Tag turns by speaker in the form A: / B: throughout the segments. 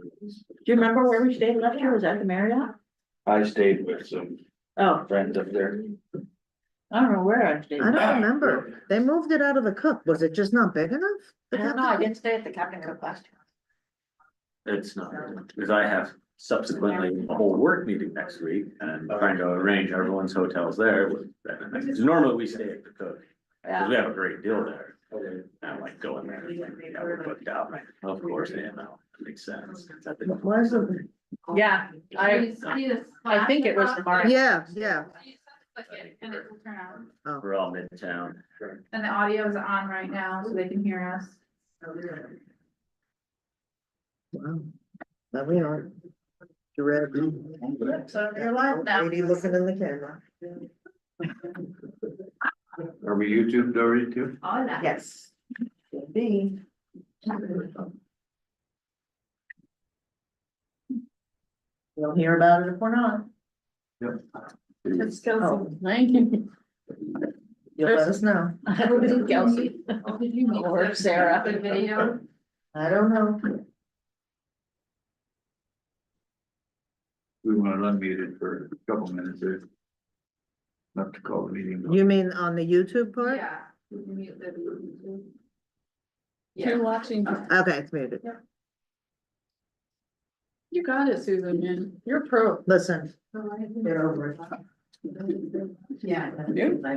A: you remember where we stayed last year? Was that the Marriott?
B: I stayed with some
A: Oh,
B: friends up there.
A: I don't know where I stayed.
C: I don't remember. They moved it out of the cup. Was it just not big enough? The
D: I don't know,
C: Cup?
D: I didn't stay at the Captain Cook last year.
E: It's not, because I have subsequently a whole work meeting next week and I'm trying to arrange everyone's hotels there. Because Normally we stay at the Cook, because we have a great deal there. And I'm like going there, and like, yeah, we're booked out, Like, of course, yeah, no, that makes sense.
C: Why is it-
A: Yeah, I, I think it was the Marriott.
C: Yeah, yeah.
F: And it will turn out,
E: We're all midtown.
F: and the audio is on right now, so they can hear us.
C: Wow. There we are. You read.
F: So you're live now.
C: Lady looking in the camera.
B: Are we YouTube already too?
F: All that.
C: Yes. B. You'll hear about it if we're not.
F: It's still.
C: Oh.
A: Thank you.
C: You'll let us know.
A: Kelsey. Or Sarah.
F: Good video.
C: I don't know.
B: We want to unmute it for a couple minutes there. Not to call the meeting.
C: You mean on the YouTube part?
F: Yeah. You can mute the-
A: You're watching.
C: Okay, it's muted.
A: You got it, Susan, man. You're pro.
C: Listen,
F: Yeah.
C: get over it.
F: Yeah.
A: You?
C: I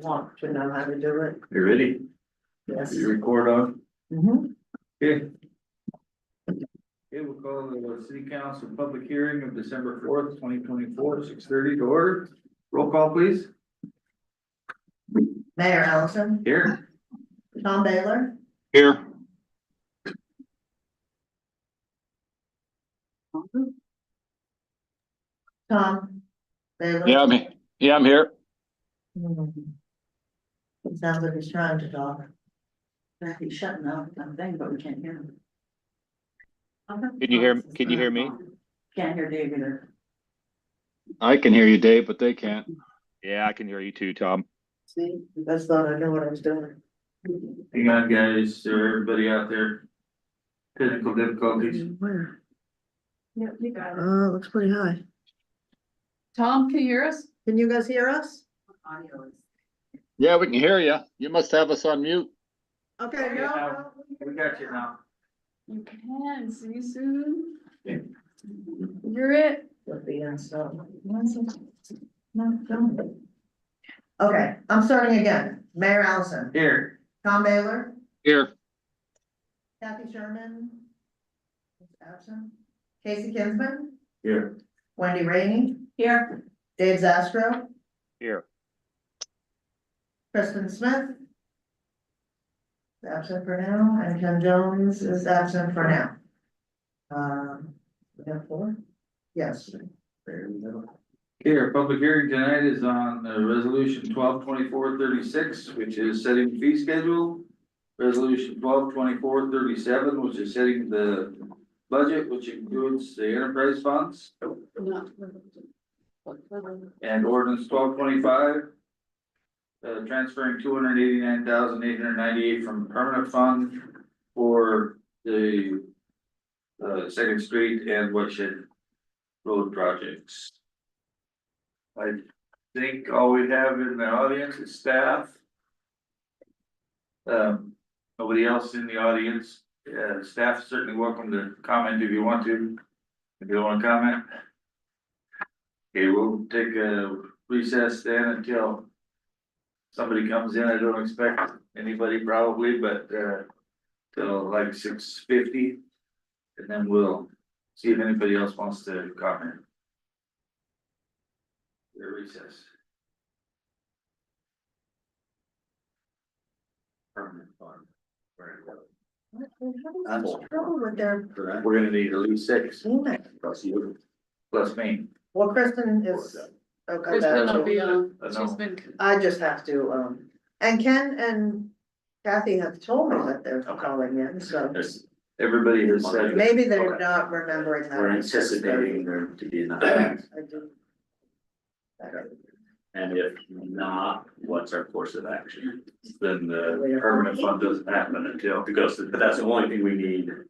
C: want to know how to do it.
B: You ready?
C: Yes.
B: You record on?
C: Mhm.
B: Okay. Okay, we'll call the city council public hearing of December fourth, twenty twenty-four, six thirty to order. Roll call, please.
C: Mayor Allison,
B: Here.
C: Tom Baylor,
B: Here.
C: Tom. Baylor.
G: Yeah, I'm, he- yeah, I'm here.
C: Hmm. It Sounds like he's trying to talk.
D: He's shutting off the thing, but we can't hear him.
G: Can you hear, can you hear me?
D: Can't hear David or.
G: I can hear you, Dave, but they can't. Yeah, I can hear you too, Tom.
C: See, you guys thought I knew what I was doing.
B: Hang on, guys, or everybody out there. Technical difficulties.
C: Where?
F: Yep, you got it.
C: Uh, looks pretty high.
A: Tom, can you hear us?
C: Can you guys hear us?
D: Audio is.
G: Yeah, we can hear you. You must have us on mute.
C: Okay.
B: Yeah, now,
C: Mm-hmm.
B: We got you now.
A: You can, see Susan.
B: Yeah.
A: You're it.
C: With the install. No, don't. Okay, I'm starting again. Mayor Allison,
B: Here.
C: Tom Baylor,
G: Here.
C: Kathy Sherman. is Absent. Casey Kinsman,
B: Here.
C: Wendy Rainey,
D: Here,
C: Dave Zastro,
G: Here.
C: Kristen Smith. is Absent for now, and Ken Jones is absent for now. Um, we have four? Yes.
B: Here, public hearing tonight is on uh, resolution twelve twenty-four thirty-six, which is setting fee schedule. Resolution twelve twenty-four thirty-seven, which is setting the budget, which includes the enterprise funds. And ordinance twelve twenty-five. Uh, transferring two hundred eighty-nine thousand eight hundred ninety-eight from permanent fund for the. Uh, Second Street and Woodshed Road projects. I think all we have in the audience is staff. Um, nobody else in the audience, uh, staff certainly welcome to comment if you want to, if you don't wanna comment. Okay, we'll take a recess then until somebody comes in, I don't expect anybody probably, but, uh, till like six fifty. And then we'll see if anybody else wants to comment. Your recess. Permanent fund.
C: Having such trouble with their
B: We're gonna need at least six,
C: email.
B: plus you, plus me.
C: Well, Kristen is. okay,
A: Kristen
C: that's-
A: will be on.
B: I know.
A: She's been.
C: I just have to, um, and Ken and Kathy have told me that they're
B: Okay.
C: calling in, so
E: There's-
B: Everybody has said.
C: maybe they're not remembering that.
E: We're anticipating there to be in the house.
C: I do.
E: And if not, what's our course of action?
B: Then the permanent uh, fund doesn't happen until.
E: Because that's the only thing we need